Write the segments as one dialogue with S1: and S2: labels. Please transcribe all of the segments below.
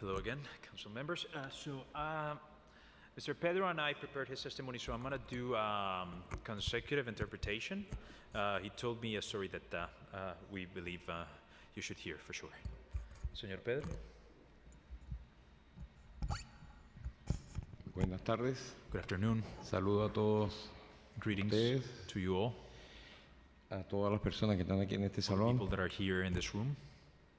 S1: Hello again, council members. Uh, So, uh, Mr. Pedro and I prepared his testimony, so I'm going to do um, consecutive interpretation. Uh, He told me a story that uh, uh, we believe uh, you should hear for sure. Señor Pedro?
S2: Buenas tardes,
S1: Good afternoon.
S2: saludo a todos,
S1: Greetings
S2: Ustedes.
S1: to you all,
S2: a todas las personas que están aquí en este
S1: people
S2: salón.
S1: that are here in this room.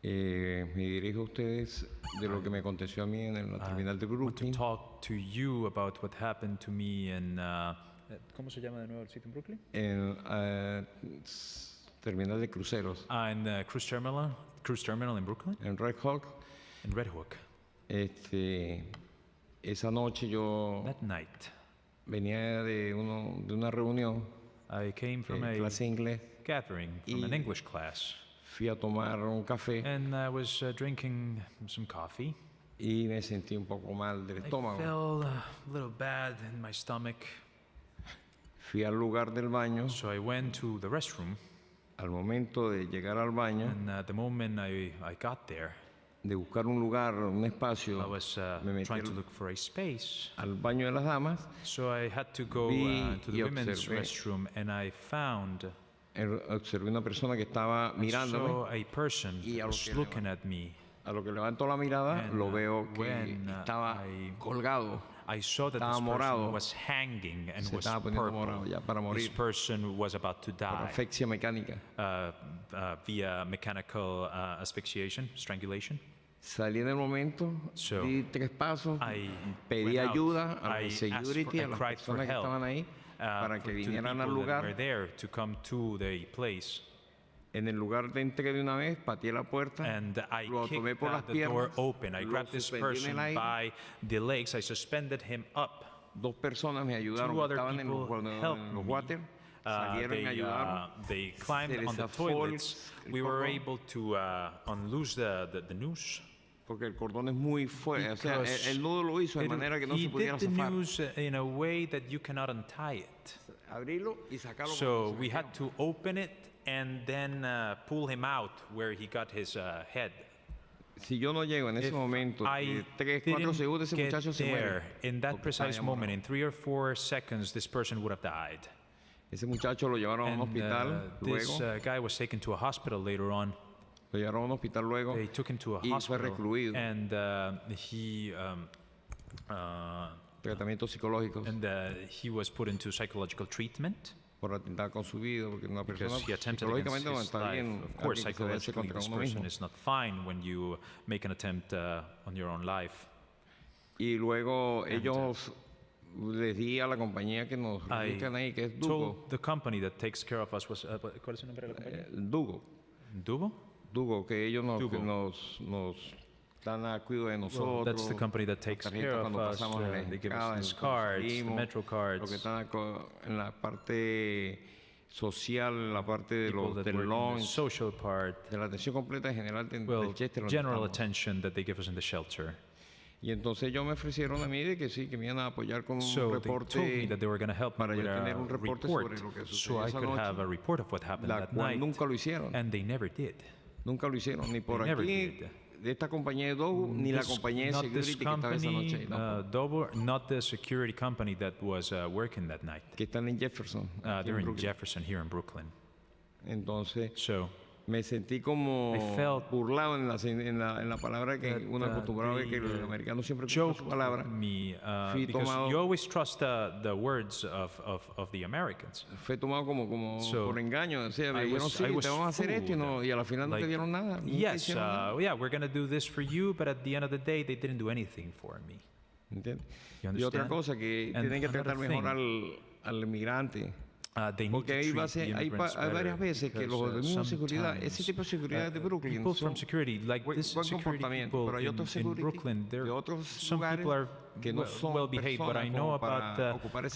S2: Eh, me dirijo a ustedes de lo que me aconteció a mí en la terminal de
S1: I want to
S2: Brooklyn.
S1: Ah, talk to you about what happened to me in... uh, ¿Cómo se llama de nuevo el sitio en Brooklyn?
S2: En la terminal de cruceros,
S1: Ah, in the cruise terminal, cruise terminal in Brooklyn,
S2: en Red Hawk.
S1: in Red Hook.
S2: Este, esa noche yo
S1: That night,
S2: venía de, uno, de una reunión
S1: I came from
S2: de
S1: a
S2: clase de inglés,
S1: gathering from an
S2: Y-
S1: English class,
S2: fui a tomar un café
S1: and I was uh, drinking some coffee.
S2: y me sentí un poco mal del
S1: I
S2: estómago.
S1: felt uh, a little bad in my stomach,
S2: Fui al lugar del baño.
S1: so I went to the restroom.
S2: Al momento de llegar al baño,
S1: And uh, the moment I, I got there,
S2: de buscar un lugar, un
S1: I
S2: espacio
S1: was uh,
S2: Me metí
S1: trying
S2: al-
S1: to look for a space,
S2: al baño de las damas,
S1: so I had to go
S2: Vi
S1: uh, to
S2: y
S1: the women's
S2: observé.
S1: restroom, and I found
S2: er- observé una persona que
S1: Ah,
S2: estaba mirándome.
S1: saw a person
S2: Y
S1: that
S2: a lo
S1: was
S2: que le
S1: looking at me.
S2: A lo que levantó la mirada,
S1: And,
S2: lo
S1: uh,
S2: veo que
S1: when, uh,
S2: estaba
S1: I-
S2: colgado.
S1: I saw that
S2: Estaba
S1: this
S2: morado.
S1: person was hanging and
S2: Se
S1: was
S2: estaba poniendo
S1: purple.
S2: morado ya para
S1: This
S2: morir
S1: person was about to
S2: por
S1: die.
S2: asfixia mecánica.
S1: uh, uh, via mechanical uh, asphyxiation, strangulation.
S2: Salí en el momento,
S1: So,
S2: di tres pasos,
S1: I
S2: pedí
S1: went out.
S2: ayuda a
S1: I
S2: los
S1: asked for-
S2: security,
S1: I
S2: a las
S1: cried for
S2: personas que
S1: help,
S2: estaban ahí,
S1: uh,
S2: para
S1: for-
S2: que
S1: to the
S2: vinieran
S1: people that
S2: al
S1: were
S2: lugar.
S1: there to come to the place.
S2: En el lugar de entré de una vez, pateé la puerta,
S1: And I
S2: lo
S1: kicked
S2: tomé por las
S1: out the door
S2: piernas,
S1: open. I
S2: lo
S1: grabbed this
S2: suspendí en
S1: person
S2: el aire.
S1: by the legs. I suspended him up.
S2: dos personas me ayudaron,
S1: Two
S2: que
S1: other
S2: estaban en los,
S1: people
S2: cuando- en
S1: helped
S2: los
S1: me.
S2: water,
S1: Uh,
S2: salieron y me
S1: they,
S2: ayudaron.
S1: uh, they climbed
S2: les
S1: on the
S2: zafó el-
S1: toilets.
S2: el
S1: We were
S2: cordón.
S1: able to uh, unloose the, the, the noose.
S2: Porque el cordón es muy fuerte. O sea,
S1: Because
S2: el, el nudo lo hizo de
S1: It-
S2: manera que no
S1: he
S2: se pudiera
S1: did the
S2: zafar.
S1: noose uh, in a way that you cannot untie it.
S2: Abrirlo y sacarlo.
S1: So
S2: cuando se
S1: we
S2: metió.
S1: had to open it and then uh, pull him out where he got his uh, head.
S2: si yo no llego en ese
S1: If
S2: momento,
S1: I
S2: 3, 4
S1: didn't
S2: segundos, ese
S1: get
S2: muchacho se
S1: there
S2: muere.
S1: in
S2: porque
S1: that
S2: está
S1: precise
S2: enamorado.
S1: moment, in three or four seconds, this person would have died.
S2: Ese muchacho lo llevaron a un
S1: And uh,
S2: hospital
S1: this
S2: luego.
S1: uh, guy was taken to a hospital later on.
S2: lo llevaron a un hospital luego.
S1: They took him to a
S2: Y fue recluido.
S1: hospital, and uh, he um, uh,
S2: Tratamientos psicológicos
S1: and uh, he was put into psychological treatment.
S2: por atentar con su vida. Porque una persona
S1: Because he attempted against
S2: psicológicamente no
S1: his
S2: está
S1: life.
S2: bien.
S1: Of course,
S2: alguien que se vence
S1: psychologically,
S2: contra
S1: this
S2: uno mismo.
S1: person is not fine when you make an attempt uh, on your own life.
S2: Y luego ellos les di a la compañía que nos
S1: uh, I
S2: registran ahí, que es Dugo.
S1: told the company that takes care of us was. Uh, ¿Cuál es el nombre de la compañía?
S2: eh, Dugo.
S1: Dubo?
S2: Dugo, que ellos nos, que
S1: Dugo.
S2: nos, nos dan a cuidado de
S1: Well,
S2: nosotros.
S1: that's the company that takes
S2: tarjetas
S1: care of
S2: cuando
S1: us.
S2: pasamos en
S1: uh,
S2: la
S1: they give
S2: entrada,
S1: us these
S2: cuando
S1: cards, the
S2: salimos,
S1: metro
S2: Los
S1: cards.
S2: que están aco- en la parte social, la parte de
S1: people
S2: los,
S1: that work
S2: del
S1: in the
S2: launch,
S1: social part.
S2: de la atención completa general de,
S1: Well,
S2: del Chester. donde
S1: general
S2: estamos.
S1: attention that they give us in the shelter.
S2: Y entonces ellos me ofrecieron a mí de que sí, que me iban a apoyar con un
S1: So they told me
S2: reporte,
S1: that they were going to help me
S2: para yo
S1: with
S2: tener
S1: a
S2: un reporte sobre
S1: report,
S2: lo que
S1: so
S2: sucedió
S1: I
S2: esa
S1: could
S2: noche,
S1: have a report of what happened
S2: la
S1: that
S2: cual
S1: night.
S2: nunca lo hicieron.
S1: And they never did.
S2: Nunca lo hicieron, ni por
S1: They never
S2: aquí, de esta compañía de Dugo, ni la
S1: This-
S2: compañía de
S1: not this
S2: security que estaba esa noche. ahí
S1: company,
S2: tampoco.
S1: uh, Dover, not the security company that was uh, working that night.
S2: que están en Jefferson.
S1: Uh,
S2: aquí en
S1: they're in
S2: Brooklyn.
S1: Jefferson here in Brooklyn.
S2: Entonces
S1: So
S2: me sentí como
S1: I felt
S2: burlado en la, en la, en la palabra que
S1: that,
S2: uno
S1: uh,
S2: acostumbraba
S1: they,
S2: que los
S1: uh,
S2: americanos siempre escuchan
S1: joked
S2: su palabra.
S1: with me uh,
S2: Fui tomado-
S1: because you always trust the, the words of, of, of the Americans.
S2: Fue tomado como, como
S1: So,
S2: por engaño. O sea,
S1: I
S2: me dijeron,
S1: was-
S2: sí,
S1: I was
S2: te vamos a hacer esto y, no,
S1: fooled.
S2: y a la final no te
S1: Like,
S2: dieron nada. nunca
S1: Yes,
S2: hicieron nada,
S1: uh, yeah, we're gonna do this for you, but at the end of the day, they didn't do anything for me.
S2: ¿entiendes?
S1: you
S2: Y otra
S1: understand?
S2: cosa, que
S1: And
S2: tienen que
S1: another
S2: tratar mejor
S1: thing.
S2: al, al inmigrante.
S1: Uh, they need
S2: Porque
S1: to
S2: ahí va a
S1: treat
S2: ser-
S1: the
S2: hay, pa-
S1: immigrants
S2: hay varias
S1: better
S2: veces que los
S1: because, uh,
S2: de mismo seguridad, ese
S1: sometimes,
S2: tipo de seguridad de
S1: uh,
S2: Brooklyn
S1: people
S2: son
S1: from security, like
S2: buen-
S1: this
S2: buen
S1: security
S2: comportamiento,
S1: people
S2: pero hay
S1: in,
S2: otros
S1: in
S2: security
S1: Brooklyn, they're,
S2: de otros
S1: some
S2: lugares
S1: people are
S2: que no
S1: well,
S2: son
S1: well behaved, but
S2: personas
S1: I
S2: como
S1: know
S2: para
S1: about uh,
S2: ocupar ese